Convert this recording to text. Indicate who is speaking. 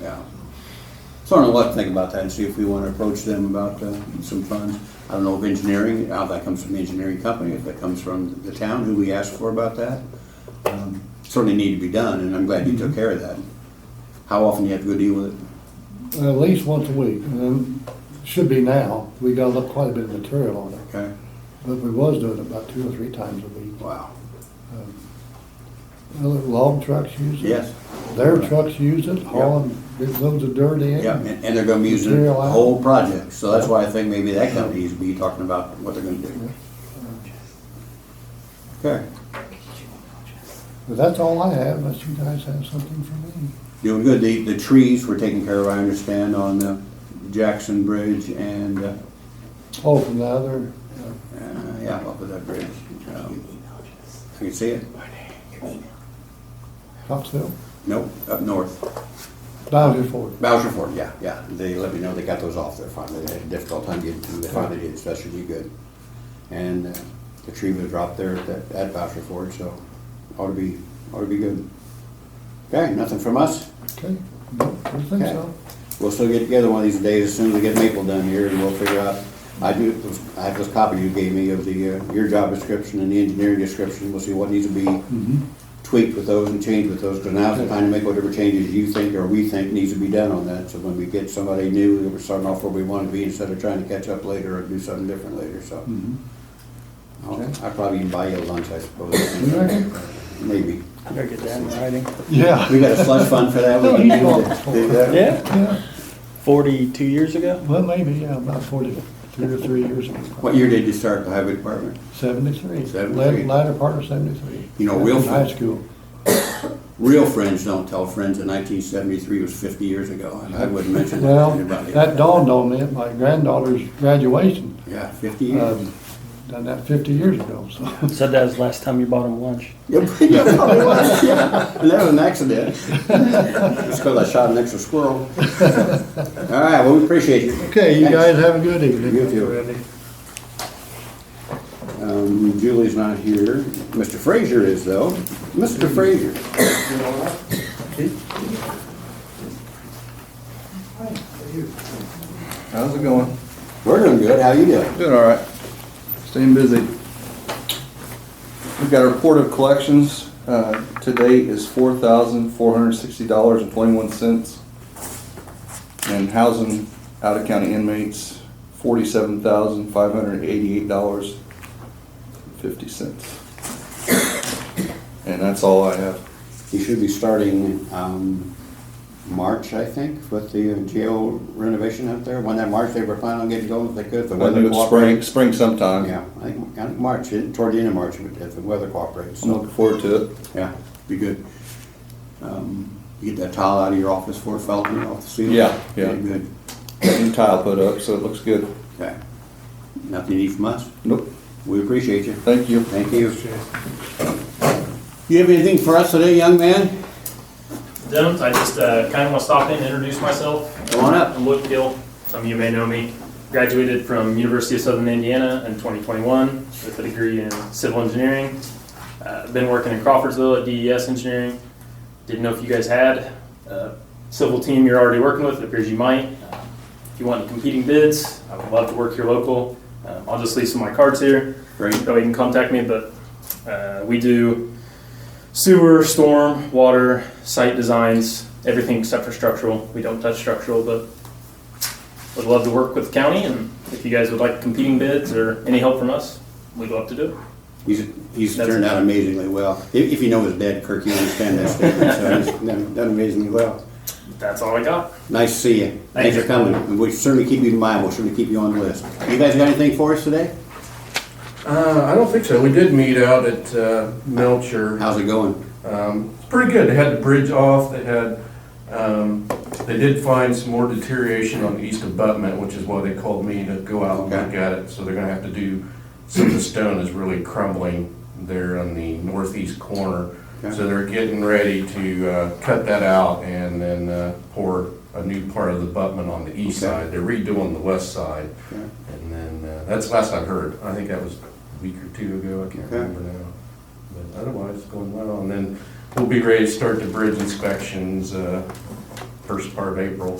Speaker 1: yeah. So I don't know what to think about that and see if we want to approach them about uh, some funds. I don't know if engineering, how that comes from the engineering company, if that comes from the town, who we asked for about that. Um, Certainly need to be done, and I'm glad you
Speaker 2: Mm-hmm.
Speaker 1: took care of that. How often do you have to go deal with it?
Speaker 2: At least once a week, and then, should be now, we got a lot- quite a bit of material on it,
Speaker 1: Okay,
Speaker 2: but we was doing it about two or three times a week.
Speaker 1: wow,
Speaker 2: Um, well, the Log trucks use it.
Speaker 1: yes,
Speaker 2: Their trucks use it, hauling big loads of dirt in.
Speaker 1: yeah, and and they're gonna be using the
Speaker 2: Material out.
Speaker 1: whole project, so that's why I think maybe that company needs to be talking about what they're gonna do. Okay,
Speaker 2: But that's all I have, unless you guys have something for me.
Speaker 1: doing good, the, the trees were taken care of, I understand, on the Jackson Bridge and uh,
Speaker 2: Oh, from the other, uh,
Speaker 1: Uh, yeah, up at that bridge. Um, I can see it.
Speaker 2: Topsail,
Speaker 1: Nope, up north.
Speaker 2: Bowser Ford.
Speaker 1: Bowser Ford, yeah, yeah. They let me know they got those off there finally. They had a difficult time getting through. They finally did, so that should be good. And uh, the tree was dropped there at, that- at Bowser Ford, so ought to be, ought to be good. Okay, nothing from us.
Speaker 2: Okay, no, I don't think
Speaker 1: Okay.
Speaker 2: so.
Speaker 1: We'll still get together one of these days as soon as we get Maple done here and we'll figure out. I do, I have this copy you gave me of the, uh, your job description and the engineering description. We'll see what needs to be tweaked with those and changed with those, because now's the time to make whatever changes you think or we think needs to be done on that. So when we get somebody new, we're starting off where we want to be instead of trying to catch up later or do something different later, so. I'll I'll probably even buy you a lunch, I
Speaker 2: You
Speaker 1: suppose.
Speaker 2: reckon?
Speaker 1: Maybe.
Speaker 3: Better get that in writing.
Speaker 2: Yeah.
Speaker 1: We got a slush fund for that. We can do that. Do that.
Speaker 3: Yeah,
Speaker 2: Yeah,
Speaker 3: forty-two years ago?
Speaker 2: well, maybe, yeah, about forty-three or three years ago.
Speaker 1: What year did you start the highway department?
Speaker 2: Seventy-three.
Speaker 1: Seventy-three.
Speaker 2: Latter- Latter part of seventy-three.
Speaker 1: You know, real
Speaker 2: In High
Speaker 1: fun.
Speaker 2: school.
Speaker 1: Real friends don't tell friends that nineteen seventy-three was fifty years ago, and I wouldn't mention that
Speaker 2: Well,
Speaker 1: to anybody.
Speaker 2: that dawned on me at my granddaughter's graduation,
Speaker 1: Yeah, fifty years.
Speaker 2: um, done that fifty years ago, so.
Speaker 3: Said that was the last time you bought him lunch.
Speaker 1: Yep, yeah, probably was, yeah. And that was an accident. It's because I shot an extra squirrel. All right, well, we appreciate you.
Speaker 2: Okay, you
Speaker 1: Thanks.
Speaker 2: guys have a good evening.
Speaker 1: You too. Um, Julie's not here. Mr. Frazier is though. Mr. Frazier.
Speaker 4: How's it going?
Speaker 1: We're doing good. How you doing?
Speaker 4: Doing all right. Staying busy. We've got a report of collections. Uh, to date is four thousand four hundred sixty dollars and twenty-one cents. And housing out of county inmates, forty-seven thousand five hundred eighty-eight dollars fifty cents. And that's all I have.
Speaker 1: He should be starting, um, March, I think, with the jail renovation out there. When that March, they were planning on getting going if they could. if the
Speaker 4: I
Speaker 1: weather
Speaker 4: think it's spring,
Speaker 1: cooperates.
Speaker 4: spring sometime.
Speaker 1: Yeah, I think, I think March, eh, toward the end of March, if the weather cooperates.
Speaker 4: I'm looking forward to it.
Speaker 1: Yeah, be good. Um, You get that tile out of your office for Felton, off the ceiling?
Speaker 4: Yeah, yeah.
Speaker 1: Good,
Speaker 4: Got new tile put up, so it looks good.
Speaker 1: okay. Nothing you need from us?
Speaker 4: Nope.
Speaker 1: We appreciate you.
Speaker 4: Thank you.
Speaker 1: Thank you. You have anything for us today, young man?
Speaker 5: don't. I just uh, kind of want to stop in and introduce myself.
Speaker 1: Come on up.
Speaker 5: I'm Luke Gill. Some of you may know me. Graduated from University of Southern Indiana in 2021 with a degree in civil engineering. Uh, been working in Crawfordsville at DES Engineering. Didn't know if you guys had a civil team you're already working with. It appears you might. Uh, If you want any competing bids, I would love to work here local. Um, I'll just leave some of my cards here.
Speaker 1: Great.
Speaker 5: That way you can contact me, but uh, we do sewer, storm, water, site designs, everything except for structural. We don't touch structural, but would love to work with the county, and if you guys would like competing bids or any help from us, we'd love to do it.
Speaker 1: He's, he's
Speaker 5: That's-
Speaker 1: turned out amazingly well. If, if you know his dad, Kirk, you understand that statement, so he's done done amazingly well.
Speaker 5: That's all I got.
Speaker 1: Nice to see you. Thanks for
Speaker 5: you.
Speaker 1: coming. And We'll certainly keep you in mind, we'll certainly keep you on the list. You guys got anything for us today?
Speaker 6: Uh, I don't think so. We did meet out at uh, Melcher.
Speaker 1: How's it going?
Speaker 6: Um, it's pretty good. They had the bridge off. They had, um, they did find some more deterioration on the east abutment, which is why they called me to go out and look
Speaker 1: Okay.
Speaker 6: at it. So they're gonna have to do, some of the stone is really crumbling there on the northeast corner.
Speaker 1: Okay.
Speaker 6: So they're getting ready to uh, cut that out and then uh, pour a new part of the abutment on the east
Speaker 1: Okay.
Speaker 6: side. They're redoing the west side.
Speaker 1: Okay.
Speaker 6: And then, uh, that's the last I heard. I think that was a week or two ago. I can't
Speaker 1: Okay.
Speaker 6: remember now. But otherwise, it's going well. And then we'll be ready to start the bridge inspections, uh, first part of April.